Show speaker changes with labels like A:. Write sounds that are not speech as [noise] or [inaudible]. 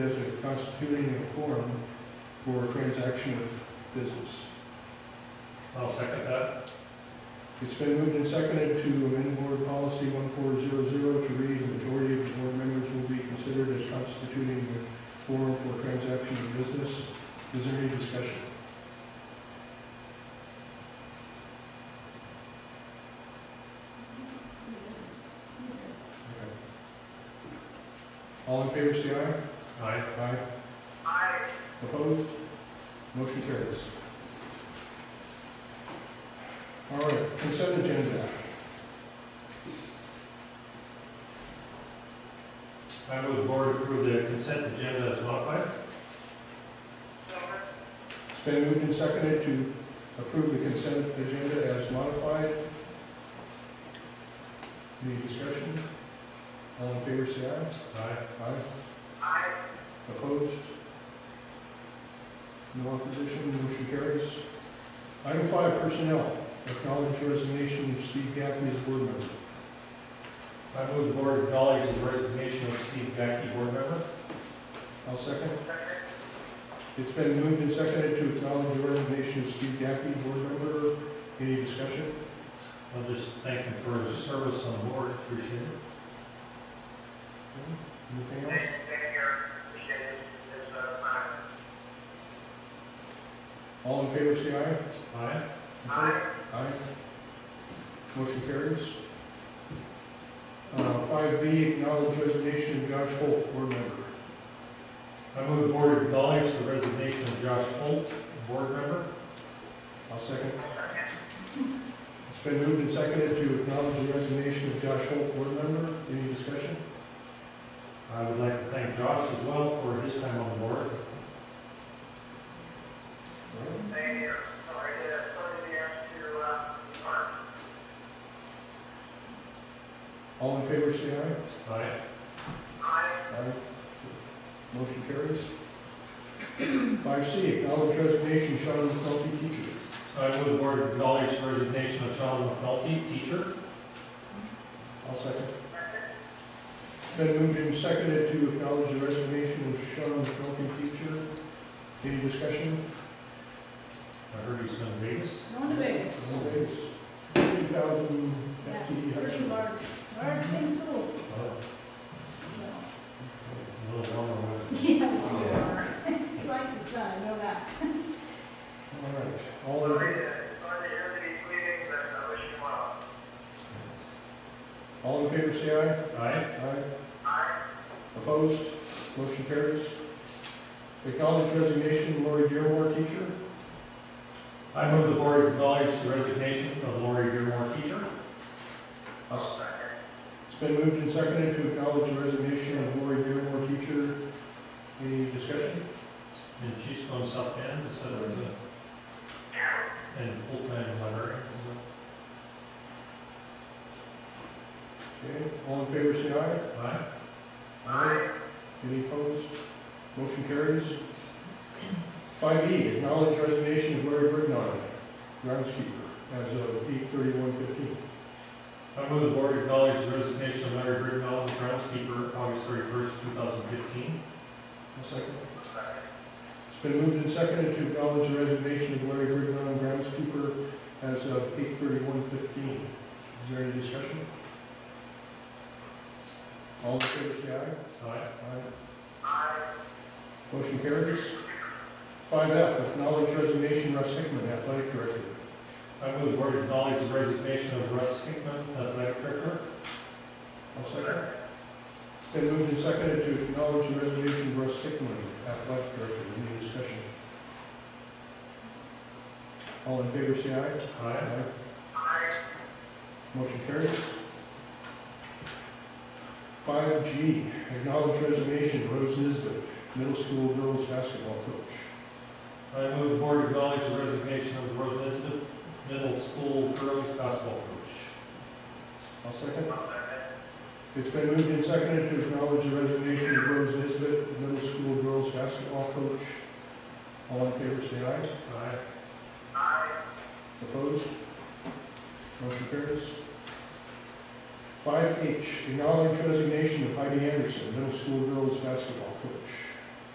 A: as a constituting a quorum for a transaction of business.
B: I'll second that.
A: It's been moved and seconded to amend board policy one four zero zero to read the majority of the board members will be considered as constituting a quorum for a transaction of business. Is there any discussion? Okay. All in favor, say aye.
B: Aye.
A: Aye.
C: Aye.
A: Opposed? Motion carries. All right, consent agenda.
B: I move board approve the consent agenda as modified.
C: Gilbert.
A: It's been moved and seconded to approve the consent agenda as modified. Any discussion? All in favor, say aye.
B: Aye.
A: Aye.
C: Aye.
A: Opposed? No opposition, motion carries. Item five, personnel. Acknowledge resignation of Steve Gaffney as board member.
B: I move the board acknowledge the resignation of Steve Gacke, board member.
A: I'll second.
C: Second.
A: It's been moved and seconded to acknowledge the resignation of Steve Gaffney, board member. Any discussion?
B: I'll just thank him for his service on the board, appreciate it.
A: Anything else?
C: Thank thank you. Appreciate it. It's, uh, fine.
A: All in favor, say aye.
B: Aye.
C: Aye.
A: Aye. Motion carries. Uh, five B, acknowledge resignation of Josh Holt, board member.
B: I move the board acknowledge the resignation of Josh Holt, board member.
A: I'll second.
C: Second.
A: It's been moved and seconded to acknowledge the resignation of Josh Holt, board member. Any discussion?
B: I would like to thank Josh as well for his time on the board.
C: Thank you. Sorry to, sorry to ask you, uh, Mark.
A: All in favor, say aye.
B: Aye.
C: Aye.
A: Aye. Motion carries. Five C, acknowledge resignation of Sean McNulty, teacher.
B: I move the board acknowledge the resignation of Sean McNulty, teacher.
A: I'll second.
C: Second.
A: It's Been moved and seconded to acknowledge the resignation of Sean McNulty, teacher. Any discussion?
B: I heard he's going to Vegas.
D: Going to Vegas.
A: Fifty thousand
D: Yeah,
A: FTE high
D: pretty
A: school.
D: large, large in school.
B: Oh,
D: so.
B: A little warmer weather.
D: Yeah. [laughs] He likes his son, I know that.
A: All right, all in,
C: Sorry to, sorry to hear that he's leaving, but I wish you well.
A: all in favor, say
B: Aye.
A: aye. Aye.
C: Aye.
A: Opposed? Motion carries. Acknowledge resignation of Lori Dearmore, teacher.
B: I move the board acknowledge the resignation of Lori Dearmore, teacher.
A: It's
C: Second.
A: been moved and seconded to acknowledge the resignation of Lori Dearmore, teacher. Any discussion?
B: And she's going to South Bend instead of, uh, and full-time librarian.
A: Okay, all in favor, say aye.
B: Aye.
C: Aye.
A: Any opposed? Motion carries. Five E, acknowledge resignation of Larry Brignon, groundskeeper, as of eight thirty-one fifteen.
B: I move the board acknowledge the resignation of Larry Brittenell, groundskeeper, August thirty-first, two thousand fifteen.
A: A second.
C: Second.
A: It's been moved and seconded to acknowledge the resignation of Larry Brignon, groundskeeper, as of eight thirty-one fifteen. Is there any discussion? All in favor, say aye.
B: Aye.
A: Aye.
C: Aye.
A: Motion carries. Five F, acknowledge resignation of Russ Hickman, athletic director.
B: I move the board acknowledge the resignation of Russ Hickman, athletic director.
A: I'll second. Been moved and seconded to acknowledge the resignation of Russ Hickman, athletic director. Any discussion? All in favor, say aye.
B: Aye.
C: Aye.
A: Motion carries. Five G, acknowledge resignation of Rose Nisbet, middle school girls basketball coach.
B: I move the board acknowledge the resignation of Rose Nisbet, middle school girls basketball coach.
A: I'll second.
C: Second.
A: It's been moved and seconded to acknowledge the resignation of Rose Nisbet, middle school girls basketball coach. All in favor, say aye.
B: Aye.
C: Aye.
A: Opposed? Motion carries. Five H, acknowledge resignation of Heidi Anderson, middle school girls basketball coach.